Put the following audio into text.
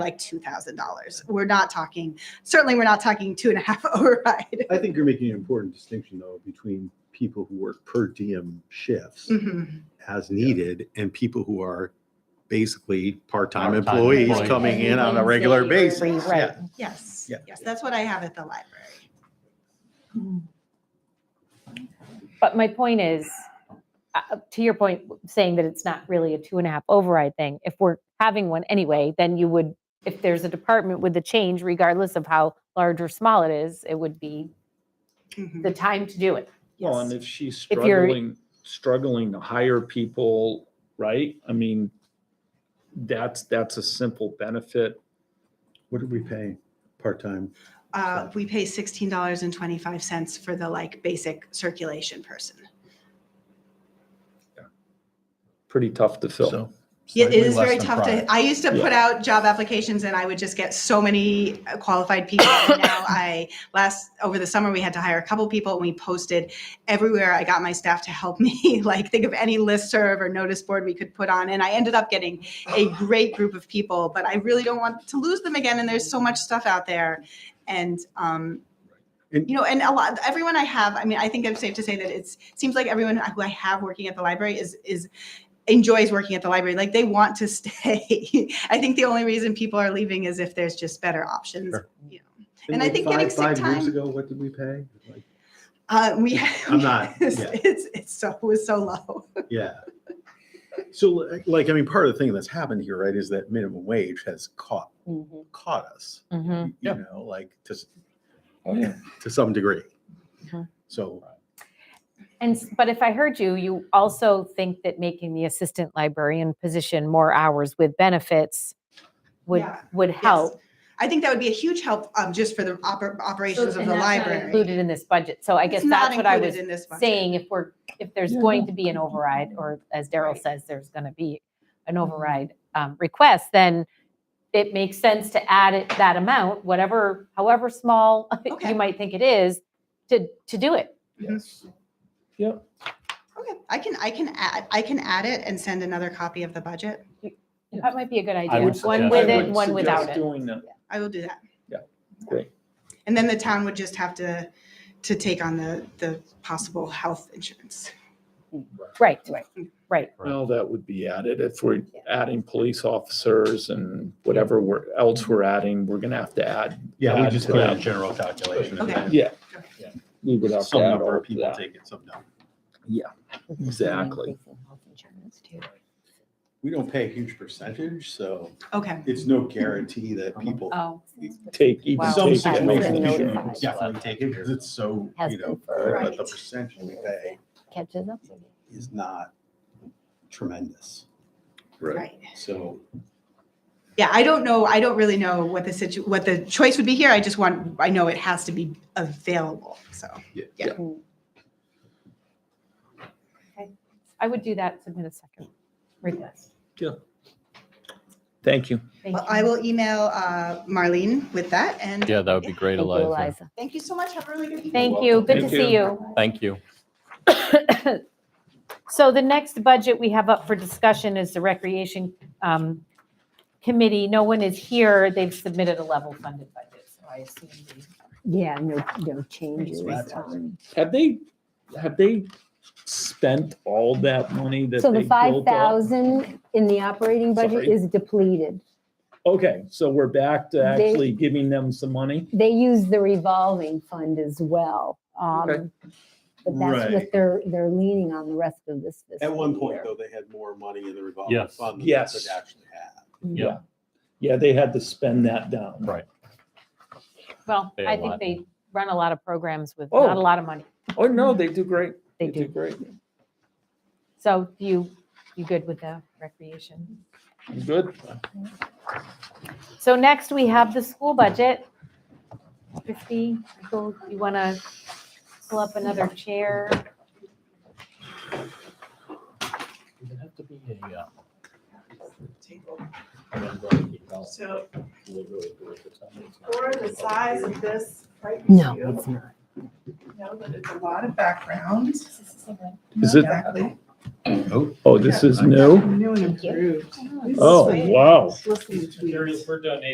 like two thousand dollars. We're not talking. Certainly, we're not talking two and a half override. I think you're making an important distinction though between people who work per diem shifts Mhm. as needed and people who are basically part-time Part-time employees employees. coming in on a Every regular Wednesday or basis. every- Yeah. right. Yes. Yeah. Yes, that's what I have at the library. But my point is, uh, to your point, saying that it's not really a two and a half override thing, if we're having one anyway, then you would, if there's a department with the change, regardless of how large or small it is, it would be Mhm. the time to do it. Well, and if she's If you're- struggling, struggling to hire people, right? I mean, that's, that's a simple benefit. What did we pay part-time? Uh, we pay sixteen dollars and twenty-five cents for the like basic circulation person. Pretty tough to fill. So Yeah, it slightly is less very than tough prior. to, I used to put out job applications and I would just get so many uh, qualified people. And now I, last, over the summer, we had to hire a couple people and we posted everywhere. I got my staff to help me, like think of any listserv or notice board we could put on. And I ended up getting a great group of people, but I really don't want to lose them again. And there's so much stuff out there. And, um, And- you know, and a lot, everyone I have, I mean, I think I'm safe to say that it's, seems like everyone who I have working at the library is, is enjoys working at the library. Like they want to stay. I think the only reason people are leaving is if there's just better options. Sure. You know, And I think getting sick Five years time- ago, what did we pay? Like, uh, we. I'm not, It's, yeah. it's, it's so it was so low. Yeah. So li- like, I mean, part of the thing that's happened here, right, is that minimum wage has caught, Mm-hmm. caught us. Mm. Mhm. You Yeah. know, like to, s- Oh, yeah. to some degree. Mm-hmm. Mhm. So And, s- but if I heard you, you also think that making the assistant librarian position more hours with benefits would, Yeah. would help. I think that would be a huge help um, just for the oper- operations of And the that's not library. Included in this budget. So I It's guess not that's what I included was in this budget. saying if we're, if there's Yeah, going no. to be an override, or as Daryl Right. says, there's going to be an override um, request, then it makes sense to add it- that amount, whatever, however small Okay. you might think it is, to, to do it. Yes. Yep. Okay, I can I can add I can add it and send another copy of the budget. That might be a good idea. would One suggest- with I it, would one without Suggest it. Doing that. I will do that. Great. And then the town would just have to to take on the the possible health insurance. Right, right, right. Well, that would be added if we're adding police officers and whatever we're, else we're adding, we're gonna have to add. Yeah, we add just to put out a that. general calculation. and Okay. then Yeah. Yeah. We would have to some add number all of to people that. take it, some don't. Exactly. We don't pay a huge percentage, so Okay. it's no guarantee that people. Oh. Take each. Wow. Some take That's information. situations, people notified. definitely take it because it's so, Has you know, been for- but Right. the percentage we pay Catches up. is not tremendous. Right. So Yeah, I don't know, I don't really know what the situ, what the choice would be here. I just want, I know it has to be available, so. I would do that, submit a second request. Thank you. Thank Well, you. I will email uh, Marlene with that, and Yeah, that would be great, Thank you, Eliza. Eliza. thank you so much. Have a really good evening. Thank you. Good to Thank see you. you. Thank you. So the next budget we have up for discussion is the Recreation um, Committee. No one is here. They've submitted a level funded budget, so I assume they. Yeah, no, no changes. That's um, Have they, have they spent all that money that So they the five built up? thousand in the operating budget Sorry. is depleted. Okay, so we're back to They- actually giving them some money? They use the revolving fund as well. Okay. um, But that's what Right. they're, they're leaning on the rest of this. at fiscal one point year. though, they had more money in the revolving Yes. fund than they Yes. could actually have. Yeah. Yeah, they had to spend that down. Right. Well, They I align. think they run a lot of programs with not a Oh. lot of money. Oh, no, they do great. They do. Great. So you, you good with the recreation? Good. So next, we have the school budget. Christie, you want to pull up another chair? Does it have to be a, uh, So really, really good or something? It's not- for the size of this, right? No, you it's not. Know that it's a lot of background. Is it, Exactly. oh, this is new? New and improved. Oh, wow. Listening to you.